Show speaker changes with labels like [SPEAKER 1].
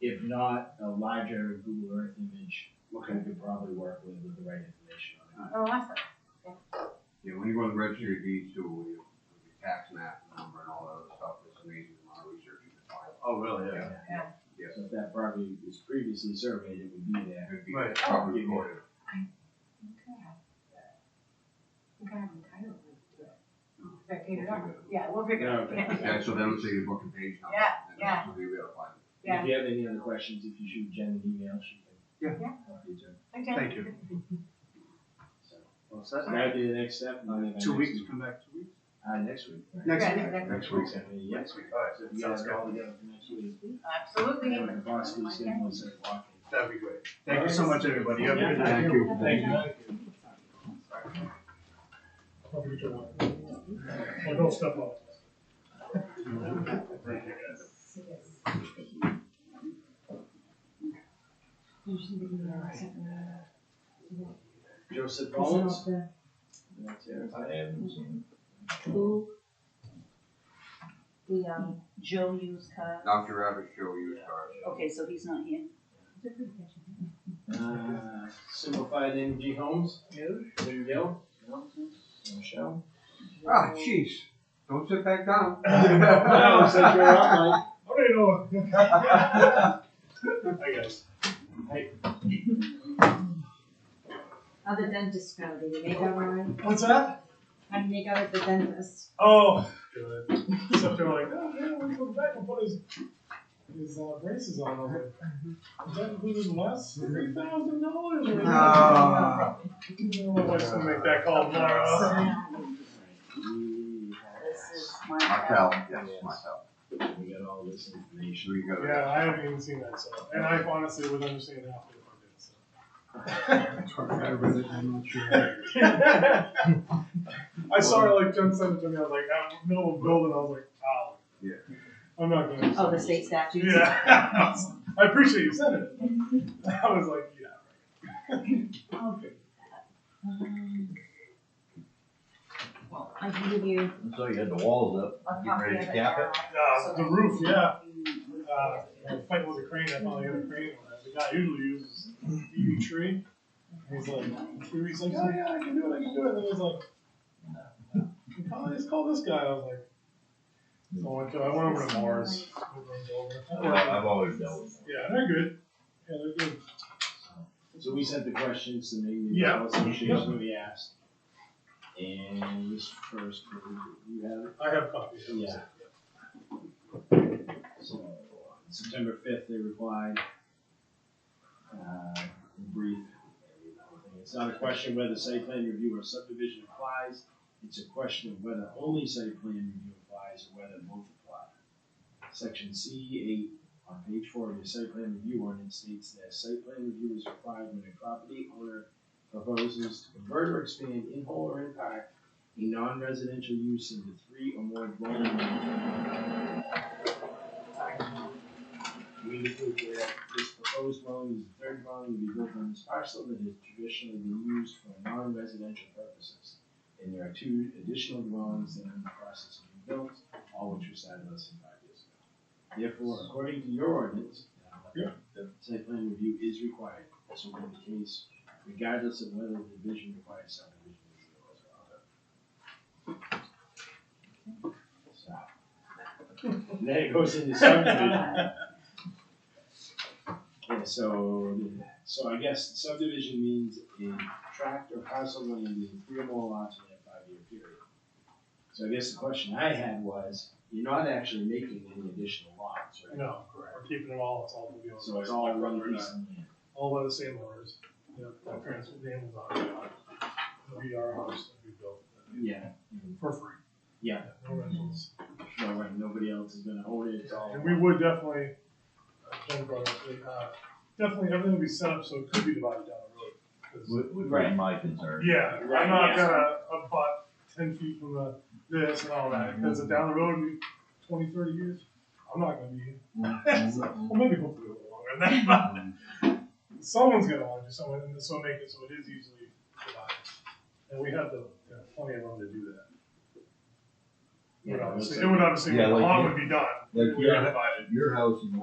[SPEAKER 1] If not, a larger Google Earth image, we
[SPEAKER 2] Okay.
[SPEAKER 1] could probably work with, with the right information on it.
[SPEAKER 3] Oh, awesome.
[SPEAKER 2] Yeah, when you go to the registry of deeds too, we, we tax map number and all that other stuff, it's amazing the amount of research you can find.
[SPEAKER 4] Oh, really? Yeah.
[SPEAKER 1] Yeah.
[SPEAKER 3] Yeah.
[SPEAKER 1] So if that property was previously surveyed, it would be there.
[SPEAKER 2] It'd be
[SPEAKER 4] Right.
[SPEAKER 2] properly
[SPEAKER 1] Oh.
[SPEAKER 2] recorded.
[SPEAKER 3] Okay. You kind of entitled to do it.
[SPEAKER 5] Oh,
[SPEAKER 2] Mm.
[SPEAKER 3] Is that good enough?
[SPEAKER 2] We'll figure it out.
[SPEAKER 3] Yeah, we'll figure it out.
[SPEAKER 4] Yeah,
[SPEAKER 3] Yeah.
[SPEAKER 2] Yeah, so then it's a book and page number.
[SPEAKER 3] Yeah,
[SPEAKER 2] and
[SPEAKER 3] yeah.
[SPEAKER 2] that's what we gotta find.
[SPEAKER 3] Yeah.
[SPEAKER 1] If you have any other questions, if you shoot Jen an email, she can.
[SPEAKER 2] Yeah.
[SPEAKER 3] Yeah.
[SPEAKER 1] help you too.
[SPEAKER 3] Okay.
[SPEAKER 4] Thank you.
[SPEAKER 1] So,
[SPEAKER 4] Well, so
[SPEAKER 1] so that'd be the next step. and then
[SPEAKER 4] that's two
[SPEAKER 1] next
[SPEAKER 4] weeks,
[SPEAKER 1] week-
[SPEAKER 4] come back two weeks?
[SPEAKER 1] Uh, next week. right?
[SPEAKER 2] Next
[SPEAKER 3] Yeah,
[SPEAKER 2] week.
[SPEAKER 3] next- next
[SPEAKER 2] Next
[SPEAKER 1] week.
[SPEAKER 2] week.
[SPEAKER 1] Yeah,
[SPEAKER 4] Next week, all
[SPEAKER 1] so if
[SPEAKER 4] right,
[SPEAKER 1] you
[SPEAKER 4] sounds
[SPEAKER 1] guys are
[SPEAKER 4] good.
[SPEAKER 1] all together for next week.
[SPEAKER 3] Absolutely.
[SPEAKER 1] Then we can possibly schedule a set of walking.
[SPEAKER 4] That'd be great. Thank you so much, everybody. You have a
[SPEAKER 1] Yeah,
[SPEAKER 4] good night.
[SPEAKER 1] thank
[SPEAKER 2] Thank you.
[SPEAKER 1] Thank you.
[SPEAKER 6] Well, don't step off.
[SPEAKER 1] Joseph Bones? That's it.
[SPEAKER 5] Who? The, um, Joe used car.
[SPEAKER 2] Dr. Rabbit Show, you start.
[SPEAKER 5] Okay, so he's not here.
[SPEAKER 1] Uh, Simplified Energy Homes?
[SPEAKER 5] No.
[SPEAKER 1] There you go. Michelle?
[SPEAKER 2] Ah, jeez, don't sit back down. Ah,
[SPEAKER 1] No, it says you're up, Mike.
[SPEAKER 6] How do you Oh, know? I guess.
[SPEAKER 7] Other dentist go, do you make out all right?
[SPEAKER 6] What's that?
[SPEAKER 7] How do you make out at the dentist?
[SPEAKER 6] Oh, good. Except they're like, oh, yeah, we go back and put his, his uh, braces on. I'm like, Is that including less? Three thousand dollars?
[SPEAKER 2] No.
[SPEAKER 6] My wife's gonna make that call tomorrow.
[SPEAKER 1] We
[SPEAKER 5] This is
[SPEAKER 1] have-
[SPEAKER 5] my.
[SPEAKER 2] Martel, yes, Martel.
[SPEAKER 1] we got all this information.
[SPEAKER 2] Sure you got it.
[SPEAKER 6] Yeah, I haven't even seen that, so, and I honestly would understand half of it if
[SPEAKER 2] I read it, I'm not sure.
[SPEAKER 6] I did, so. I saw her like, Jen sent it to me, I was like, out in the middle of building, I was like, wow.
[SPEAKER 2] Yeah.
[SPEAKER 6] I'm not gonna.
[SPEAKER 5] Oh, the state statutes?
[SPEAKER 6] Yeah. I appreciate you sending it. I was like, yeah.
[SPEAKER 5] Um, Well, I can give you
[SPEAKER 8] So you had the walls up,
[SPEAKER 5] a
[SPEAKER 8] Get
[SPEAKER 5] copy
[SPEAKER 8] ready
[SPEAKER 5] of
[SPEAKER 8] to
[SPEAKER 5] it
[SPEAKER 8] cap
[SPEAKER 5] now.
[SPEAKER 6] Uh,
[SPEAKER 5] so
[SPEAKER 6] the
[SPEAKER 5] that
[SPEAKER 6] roof,
[SPEAKER 5] you
[SPEAKER 6] yeah.
[SPEAKER 5] can-
[SPEAKER 6] Uh, I'm fighting with a crane, I finally got a crane on that. The guy usually uses EV tree. And he's like, three weeks like, oh yeah, I can do it, I can do it. And then he's like, "You probably just call this guy. I was like, so I went to, I went over to Morris.
[SPEAKER 8] I-
[SPEAKER 6] Yeah,
[SPEAKER 8] I've always dealt with
[SPEAKER 6] they're good. Yeah, they're good.
[SPEAKER 1] So we sent the questions to the
[SPEAKER 6] Yeah.
[SPEAKER 1] Municipal Association that we asked. And this first, one, you have it?
[SPEAKER 6] I have copies.
[SPEAKER 1] Yeah. So, on September fifth, they replied, uh, in brief. It's not a question whether site plan review or subdivision applies, it's a question of whether only site plan review applies or whether both apply. Section C eight on page four of your site plan review ordinance states that site plan review is required when a property owner proposes to convert or expand in whole or in part a non-residential use into three or more dwelling units. We indicate that this proposed dwelling is the third dwelling to be built on this parcel that has traditionally been used for non-residential purposes. And there are two additional dwellings that are in the process of being built, all which were started less than five years ago. Therefore, according to your ordinance, uh, the site plan review is required, this will be the case regardless of whether the division requires subdivision review or not. So. And Then it goes into
[SPEAKER 5] Uh,
[SPEAKER 1] subdivision. Yeah, so, so I guess subdivision means a tract or parcel of land being three or more lots in a five-year period. So I guess the question I had was, you're not actually making any additional lots, right?
[SPEAKER 6] No, we're keeping it all, it's all gonna be on.
[SPEAKER 1] So it's all one
[SPEAKER 6] We're not-
[SPEAKER 1] piece of land.
[SPEAKER 6] all by the same owners. Yeah, my parents, the Amazon, it'll be our house that we built
[SPEAKER 1] Yeah,
[SPEAKER 6] for free.
[SPEAKER 1] yeah,
[SPEAKER 6] No rentals.
[SPEAKER 1] no, right, nobody else is gonna own it, it's all.
[SPEAKER 6] And we would definitely, uh, Jen brought up, uh, definitely everything would be set up so it could be divided down the road. 'cause-
[SPEAKER 8] it, would
[SPEAKER 1] Right.
[SPEAKER 8] be my concern.
[SPEAKER 6] Yeah,
[SPEAKER 1] Right,
[SPEAKER 6] I'm not
[SPEAKER 1] yeah.
[SPEAKER 6] gonna abut ten feet from the, this and all that, because down the road, in twenty, thirty years, I'm not gonna be here. So, Well, maybe hopefully a little longer than that, but uh, someone's gonna want to do something, and this will make it so it is easily divided. And we have the, you know, plenty of room to do that. It
[SPEAKER 1] Yeah,
[SPEAKER 6] would
[SPEAKER 1] it looks
[SPEAKER 6] obviously,
[SPEAKER 1] like-
[SPEAKER 6] it would obviously,
[SPEAKER 8] Yeah,
[SPEAKER 6] the
[SPEAKER 8] like
[SPEAKER 6] lawn
[SPEAKER 8] you-
[SPEAKER 6] would be done,
[SPEAKER 8] like
[SPEAKER 6] we
[SPEAKER 8] you-
[SPEAKER 6] are divided.
[SPEAKER 8] Your house and the